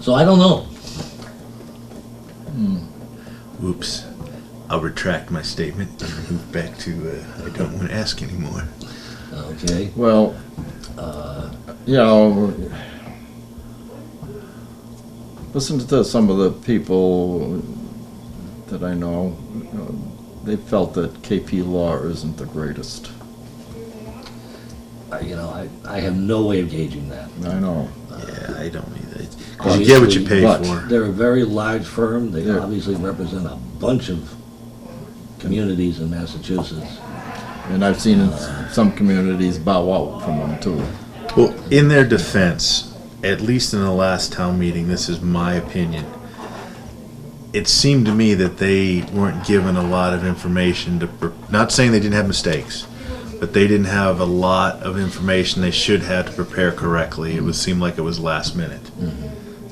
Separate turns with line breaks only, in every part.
So I don't know.
Whoops. I'll retract my statement and move back to uh, I don't want to ask anymore.
Okay.
Well, uh, you know, listen to this. Some of the people that I know, you know, they felt that KP law isn't the greatest.
I, you know, I, I have no way of gauging that.
I know.
Yeah, I don't either. Because you get what you pay
Obviously,
for.
They're a very large firm. They
Yeah.
obviously represent a bunch of communities in Massachusetts.
And I've seen in some communities bow out from them too.
Well, in their defense, at least in the last town meeting, this is my opinion. It seemed to me that they weren't given a lot of information to. pr- Not saying they didn't have mistakes, but they didn't have a lot of information they should have to prepare correctly. It would seem like it was last minute.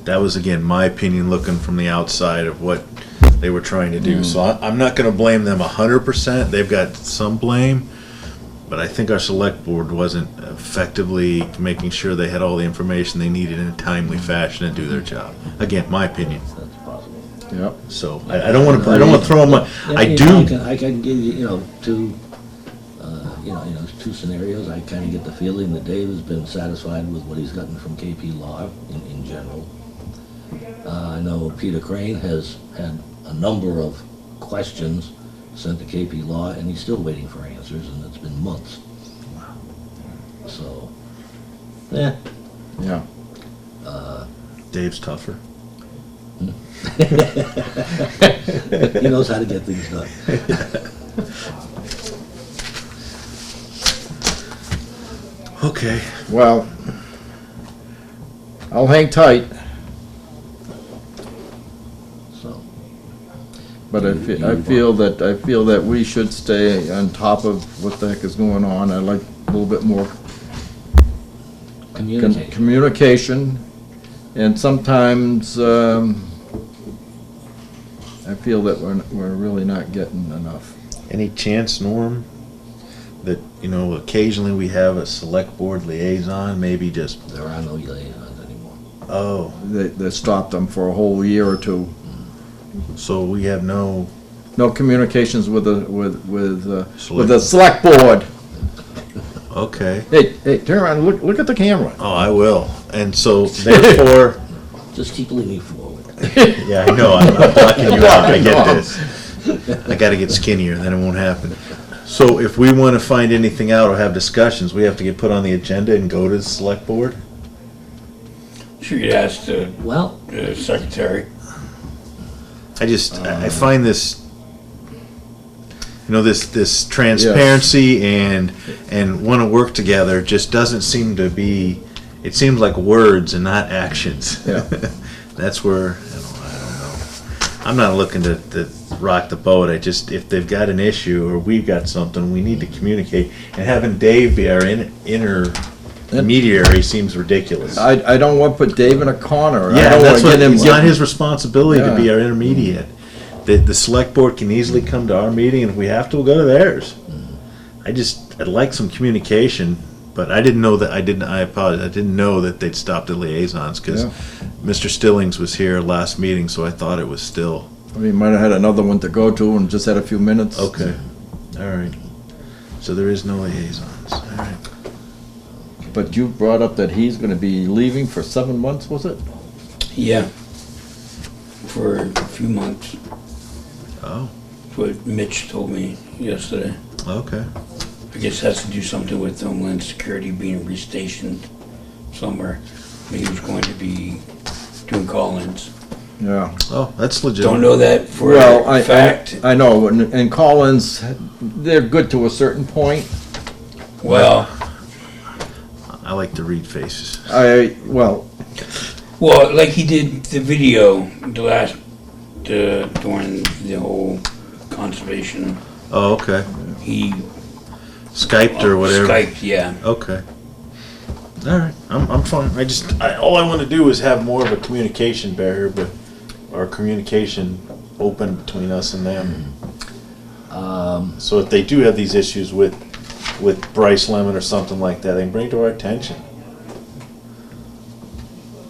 That was again my opinion, looking from the outside of what they were trying to do. So I, I'm not going to blame them hundred percent. They've got some blame, but I think our select board wasn't effectively making sure they had all the information they needed in a timely
Mm-hmm.
fashion to do their job. Again, my opinion.
That's possible.
Yep.
So I, I don't want to. I don't want to throw them. a-
Yeah,
I
you know, I
do.
can, I can give you, you know, two, uh, you know, you know, two scenarios. I kind of get the feeling that Dave has been satisfied with what he's gotten from KP Law in, in general. Uh, I know Peter Crane has had a number of questions sent to KP Law, and he's still waiting for answers, and it's been months. So, eh. yeah,
Yeah.
Dave's tougher.
he knows how to get things done.
Okay.
Well, I'll hang tight,
So,
but I fe- I feel that, I feel that we should stay on top of what the heck is going on. I like a little bit more Con-
communicate.
Communication, and sometimes, um, I feel that we're, we're really not getting enough.
Any chance, Norm, that you know occasionally we have a select board liaison? Maybe just
there are no liaisons anymore.
oh,
They, they stopped them for a whole year or two.
so we have no.
No communications with the, with, with, uh, with
Select-
the select board.
Okay.
Hey, hey, turn around, look, look at the camera.
Oh, I will. And so therefore.
Just keep leaning forward.
Yeah, I know. I'm, I'm blocking you out. I get this. I got to get skinnier, then it won't happen. So, if we want to find anything out or have discussions, we have to get put on the agenda and go to the select board.
She could ask the
Well,
uh, secretary.
I just I I find this, you know, this this transparency and and want to work together just doesn't seem to be. It seems like words and not actions.
Yeah.
That's where I don't, I don't know. I'm not looking to, to rock the boat. I just if they've got an issue or we've got something, we need to communicate. And having Dave be our in, intermediary seems ridiculous.
I, I don't want to put Dave in a corner. I
Yeah,
don't
that's
wanna
what,
get him
it's not
getting-
his responsibility to be
Yeah.
our intermediate. The, the select board can easily come to our meeting, and if we have to, we'll go to theirs. I just, I'd like some communication, but I didn't know that, I didn't, I apologize, I didn't know that they'd stopped the liaisons, because
Yeah.
Mr. Stillings was here last meeting, so I thought it was still,
I mean, might have had another one to go to and just had a few minutes.
okay, all right. So there is no liaisons, all right.
But you brought up that he's gonna be leaving for seven months, was it?
Yeah. For a few months,
Oh,
that's what Mitch told me yesterday.
okay,
I guess it has to do something with Homeland Security being restationed somewhere. He was going to be doing call-ins.
Yeah.
oh, that's legit.
Don't know that for
Well, I,
a fact.
I, I know, and, and Collins, they're good to a certain point.
Well,
I like to read faces.
I, well,
well, like he did the video, the last, uh, during the whole conservation,
Oh, okay,
he. uh,
Skyped or whatever.
Skyped, yeah.
Okay. All right, I'm, I'm fine. I just I, all I want to do is have more of a communication barrier, but or communication open between us and them. Um, so if they do have these issues with with Bryce Lemon or something like that, they can bring it to our attention.